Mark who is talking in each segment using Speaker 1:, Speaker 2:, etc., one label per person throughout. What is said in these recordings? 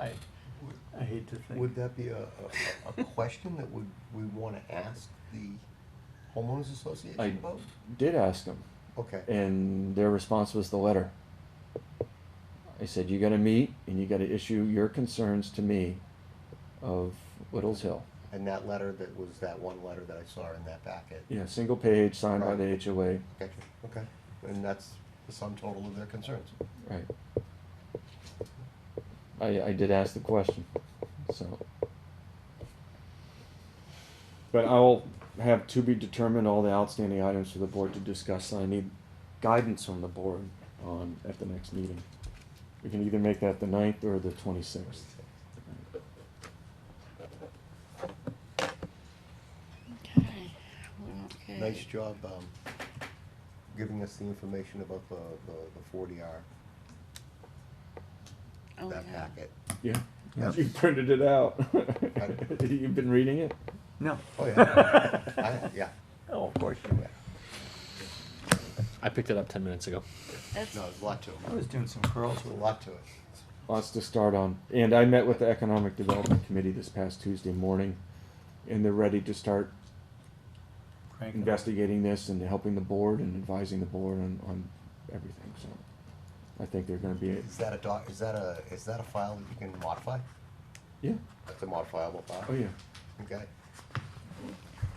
Speaker 1: I, uh, I hate to think.
Speaker 2: Would that be a, a, a question that would, we wanna ask the homeowners association
Speaker 3: I-
Speaker 2: about?
Speaker 3: Did ask them,
Speaker 2: Okay,
Speaker 3: and their response was the letter. I said, you gotta meet and you gotta issue your concerns to me of Little's Hill.
Speaker 2: and that letter that was that one letter that I saw in that packet?
Speaker 3: Yeah, single page, signed by the HOA,
Speaker 2: Gotcha, okay, and that's the sum total of their concerns.
Speaker 3: right. I, I did ask the question, so. But I'll have to be determined all the outstanding items for the board to discuss, and I need guidance from the board on, at the next meeting. We can either make that the ninth or the twenty-sixth.
Speaker 2: Nice job, um, giving us the information about the, the, the forty R,
Speaker 4: Oh,
Speaker 2: that
Speaker 4: yeah.
Speaker 2: packet.
Speaker 3: Yeah.
Speaker 2: Yeah.
Speaker 3: You printed it out. You've been reading it?
Speaker 1: No.
Speaker 2: Oh, yeah, I, yeah,
Speaker 1: Oh, of course you
Speaker 2: yeah.
Speaker 1: would.
Speaker 5: I picked it up ten minutes ago.
Speaker 4: That's,
Speaker 2: no, there's a lot to it,
Speaker 1: I was doing some curls
Speaker 2: there's a
Speaker 1: with
Speaker 2: lot to it.
Speaker 3: Lots to start on. And I met with the Economic Development Committee this past Tuesday morning, and they're ready to start
Speaker 1: Crank. them.
Speaker 3: investigating this and helping the board and advising the board on, on everything, so. I think they're gonna be,
Speaker 2: Is that a doc, is that a, is that a file that you can modify?
Speaker 3: yeah,
Speaker 2: That's a modifiable file?
Speaker 3: oh yeah,
Speaker 2: Okay.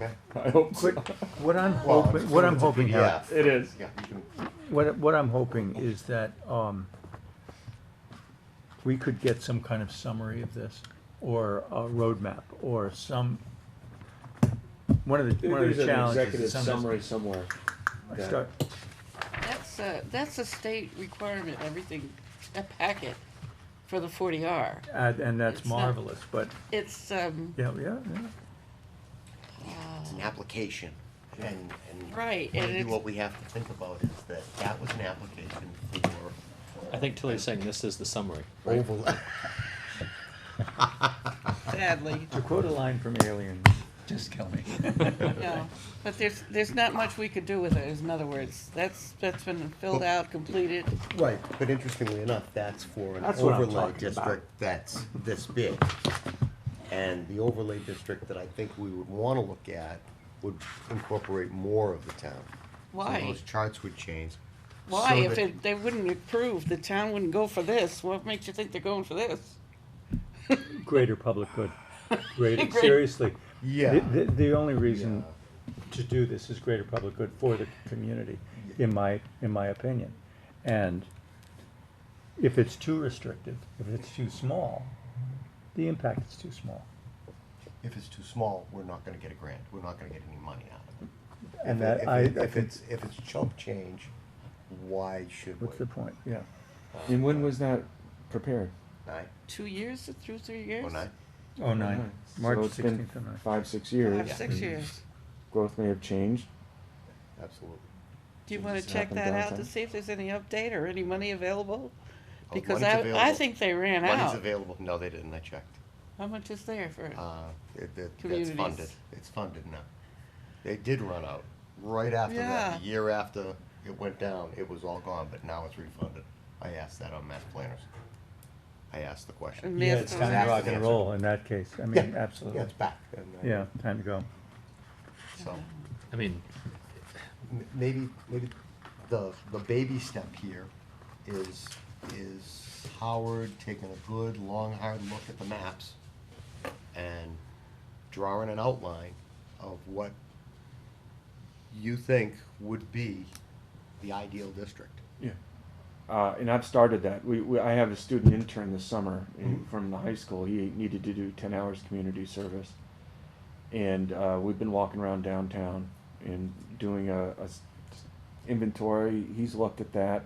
Speaker 2: Okay.
Speaker 3: I hope so.
Speaker 1: Quick, what I'm
Speaker 2: Well, I'm
Speaker 1: hoping,
Speaker 2: just
Speaker 1: what
Speaker 2: giving
Speaker 1: I'm
Speaker 2: it to
Speaker 1: hoping, Harry,
Speaker 2: PDF.
Speaker 3: It is.
Speaker 2: Yeah, you can,
Speaker 1: what, what I'm hoping is that, um, we could get some kind of summary of this, or a roadmap, or some, one of the, one of the challenges. is some-
Speaker 3: somewhere.
Speaker 1: I start-
Speaker 4: that's a, that's a state requirement, everything, a packet for the forty R.
Speaker 1: And, and that's
Speaker 4: It's not-
Speaker 1: marvelous, but,
Speaker 4: It's, um, uh,
Speaker 1: yeah, yeah, yeah.
Speaker 2: it's an application, and, and.
Speaker 4: Right, and
Speaker 2: Maybe
Speaker 4: it's-
Speaker 2: what we have to think about is that that was an application
Speaker 5: I think Tilly's saying this is the summary.
Speaker 2: for overlay.
Speaker 4: sadly,
Speaker 1: To quote a line from Aliens, just kill me.
Speaker 4: no. But there's, there's not much we could do with it, is in other words. That's, that's been filled out, completed.
Speaker 2: Right, but interestingly enough, that's for an
Speaker 1: That's what I'm
Speaker 2: overlay
Speaker 1: talking about.
Speaker 2: district that's this big. And the overlay district that I think we would wanna look at would incorporate more of the town. So
Speaker 4: Why?
Speaker 2: those charts would change.
Speaker 4: Why?
Speaker 2: so
Speaker 4: If
Speaker 2: that-
Speaker 4: it, they wouldn't approve, the town wouldn't go for this. What makes you think they're going for this?
Speaker 1: Greater public good, greater,
Speaker 4: Great.
Speaker 1: seriously.
Speaker 2: Yeah.
Speaker 1: The, the- the only reason
Speaker 2: Yeah.
Speaker 1: to do this is greater public good for the community, in my, in my opinion. And if it's too restrictive, if it's too small, the impact is too small.
Speaker 2: If it's too small, we're not gonna get a grant, we're not gonna get any money out of it.
Speaker 1: And
Speaker 2: If it-
Speaker 1: that, I,
Speaker 2: if it-
Speaker 1: I
Speaker 2: If
Speaker 1: think,
Speaker 2: it's, if it's chump change, why should we?
Speaker 1: what's the point, yeah.
Speaker 3: And when was that prepared?
Speaker 2: Nine,
Speaker 4: Two years, through three years?
Speaker 2: oh, nine?
Speaker 1: Oh, nine,
Speaker 2: Mm-hmm.
Speaker 1: March
Speaker 3: So it's been
Speaker 1: sixteenth and nine.
Speaker 3: Five, six years.
Speaker 4: Five, six years.
Speaker 3: Growth may have changed.
Speaker 2: Absolutely.
Speaker 4: Do you
Speaker 3: Did
Speaker 4: wanna
Speaker 3: this
Speaker 4: check
Speaker 3: happen
Speaker 4: that out
Speaker 3: downtown?
Speaker 4: to see if there's any update or any money available?
Speaker 2: Oh,
Speaker 4: Because
Speaker 2: money's
Speaker 4: I, I
Speaker 2: available.
Speaker 4: think they ran
Speaker 2: Money's
Speaker 4: out.
Speaker 2: available, no, they didn't, I checked.
Speaker 4: How much is there for it?
Speaker 2: Uh, it, that- that's
Speaker 4: Communities.
Speaker 2: funded, it's funded now. They did run out, right after
Speaker 4: Yeah.
Speaker 2: that, the year after it went down, it was all gone, but now it's refunded. I asked that on Mass Planners. I asked the question.
Speaker 4: And Yeah, it's time to
Speaker 2: Asked
Speaker 4: rock
Speaker 2: the answer.
Speaker 1: in that case, I
Speaker 2: Yeah,
Speaker 1: absolutely.
Speaker 2: Yeah, it's back. and, uh,
Speaker 1: Yeah, time to go.
Speaker 2: So.
Speaker 5: I mean,
Speaker 2: m- maybe, maybe the, the baby step here is, is Howard taking a good, long, hard look at the maps and drawing an outline of what you think would be the ideal district.
Speaker 3: Yeah. Uh, and I've started that. We, we, I have a student intern this summer in, from the high school. He needed to do ten hours community service. And, uh, we've been walking around downtown and doing a, a s- inventory. He's looked at that.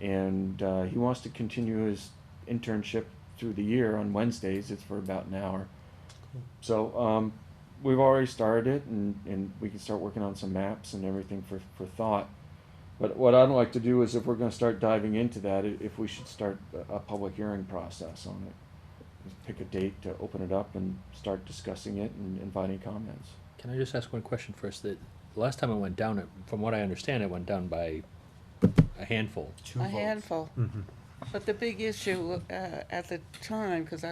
Speaker 3: And, uh, he wants to continue his internship through the year on Wednesdays. It's for about an hour. So, um, we've already started it and, and we can start working on some maps and everything for, for thought. But what I'd like to do is if we're gonna start diving into that, i- if we should start a, a public hearing process on it. Just Pick a date to open it up and start discussing it and inviting comments.
Speaker 5: can I just ask one question first? That the last time I went down, it, from what I understand, it went down by a handful.
Speaker 2: Two
Speaker 4: A
Speaker 2: votes.
Speaker 4: handful. But the big issue uh, at the time, because